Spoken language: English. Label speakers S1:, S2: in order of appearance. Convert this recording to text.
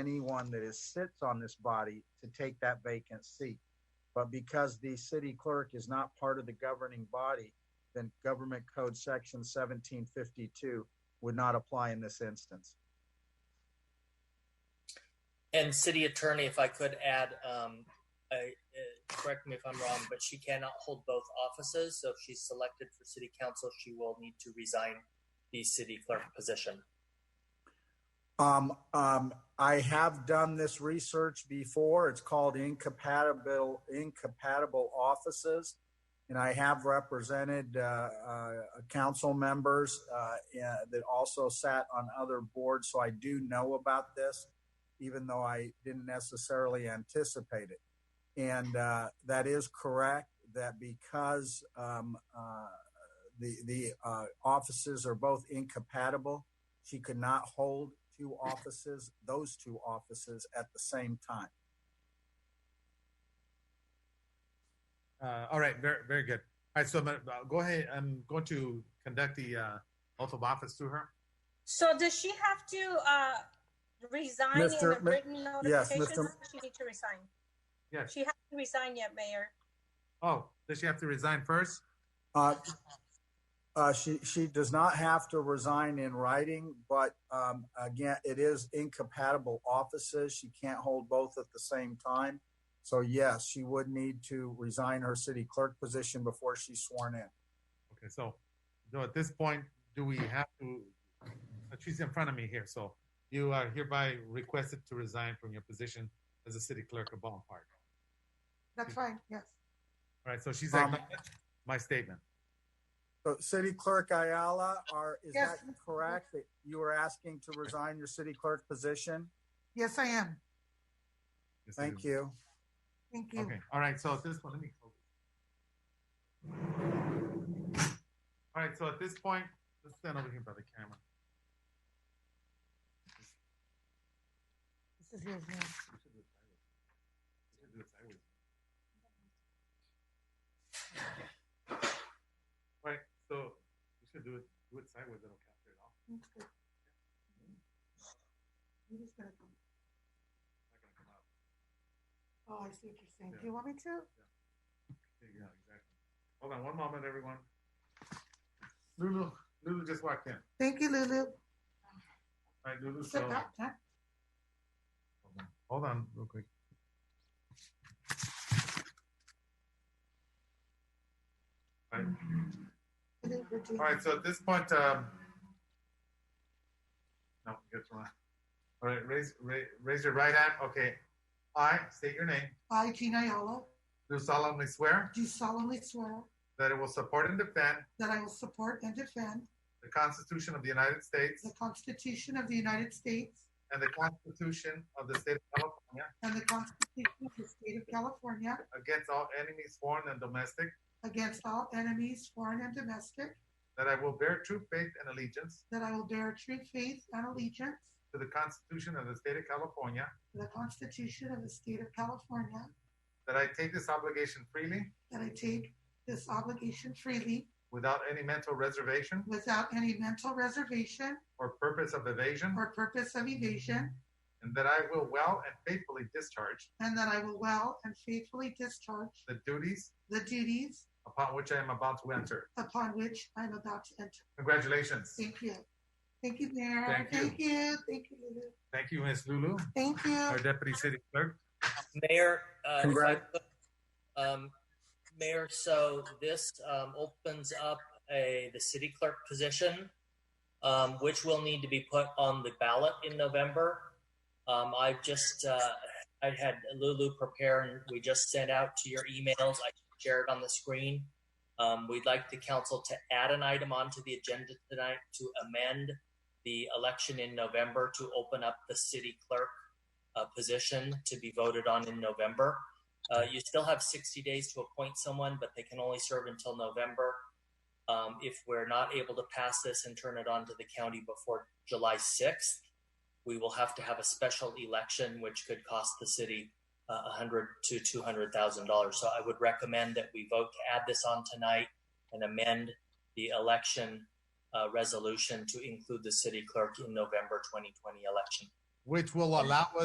S1: anyone that is sits on this body to take that vacant seat. But because the city clerk is not part of the governing body, then government code section seventeen fifty-two would not apply in this instance.
S2: And city attorney, if I could add, um, I, uh, correct me if I'm wrong, but she cannot hold both offices. So if she's selected for city council, she will need to resign the city clerk position.
S1: Um, um, I have done this research before. It's called incompatible incompatible offices, and I have represented uh, uh, council members uh, yeah, that also sat on other boards. So I do know about this, even though I didn't necessarily anticipate it. And uh, that is correct. That because um, uh, the the uh, offices are both incompatible. She could not hold two offices, those two offices at the same time.
S3: Uh, all right, very, very good. All right, so I'm gonna, uh, go ahead. I'm going to conduct the uh, oath of office through her.
S4: So does she have to uh, resign in
S1: Mr.
S4: the
S1: Ma-
S4: written
S1: yes,
S4: notification?
S1: Mr.
S4: Does She need to resign?
S3: Yes.
S4: She has to resign yet, Mayor.
S3: Oh, does she have to resign first?
S1: Uh, uh, she she does not have to resign in writing, but um, again, it is incompatible offices. She can't hold both at the same time. So yes, she would need to resign her city clerk position before she's sworn in.
S3: Okay, so, so at this point, do we have to? uh, She's in front of me here, so you are hereby requested to resign from your position as a city clerk of Baldwin Park.
S5: That's fine, yes.
S3: All right, so she's
S1: Um,
S3: acknowledged my statement.
S1: So, City Clerk Ayala, are is
S5: Yes.
S1: that correct that you were asking to resign your city clerk position?
S5: Yes, I am.
S3: Yes, it
S1: Thank
S3: is.
S1: you.
S5: Thank you.
S3: Okay, all right, so at this point, let me. close this. All right, so at this point, let's stand over here by the camera.
S5: This is yours now.
S3: Right, so you should do it, do it sideways, it'll capture it all.
S5: That's good. I'm just gonna come.
S3: It's not gonna come out.
S5: Oh, I see what you're saying. Do you want me to?
S3: There you go, exactly. Hold on one moment, everyone. Lulu, Lulu just walked in.
S5: Thank you, Lulu.
S3: All right, Lulu, so,
S5: Sit back, huh?
S3: hold on real quick. All right,
S5: Lulu, Virginia.
S3: All right, so at this point, um, no, that's wrong. All right, raise, raise, raise your right hand. Okay. I state your name.
S5: I, Gina Ayala,
S3: Do solemnly swear
S5: do solemnly swear
S3: that I will support and defend
S5: that I will support and defend
S3: the Constitution of the United States
S5: the Constitution of the United States
S3: and the Constitution of the State of California
S5: and the Constitution of the State of California
S3: against all enemies, foreign and domestic,
S5: against all enemies, foreign and domestic,
S3: that I will bear true faith and allegiance
S5: that I will bear true faith and allegiance
S3: to the Constitution of the State of California,
S5: to the Constitution of the State of California
S3: that I take this obligation freely
S5: That I take this obligation freely
S3: without any mental reservation
S5: without any mental reservation
S3: or purpose of evasion,
S5: or purpose of evasion.
S3: and that I will well and faithfully discharge
S5: And that I will well and faithfully discharge
S3: the duties
S5: the duties
S3: upon which I am about to enter.
S5: upon which I'm about to enter.
S3: Congratulations.
S5: Thank you. Thank you, Mayor.
S3: Thank you.
S5: Thank you. Thank you, Lulu.
S3: Thank you, Ms. Lulu,
S5: Thank
S3: our
S5: you.
S3: deputy city clerk.
S2: Mayor, uh, if I
S1: Congrat-
S2: could, um, Mayor, so this um, opens up a the city clerk position, um, which will need to be put on the ballot in November. Um, I've just uh, I had Lulu prepare, and we just sent out to your emails. I shared on the screen. Um, we'd like the council to add an item onto the agenda tonight to amend the election in November to open up the city clerk uh, position to be voted on in November. Uh, you still have 60 days to appoint someone, but they can only serve until November. Um, if we're not able to pass this and turn it on to the county before July 6th, we will have to have a special election, which could cost the city uh, 100 to 200 thousand dollars. So I would recommend that we vote to add this on tonight and amend the election uh, resolution to include the city clerk in November 2020 election.
S3: Which will allow us.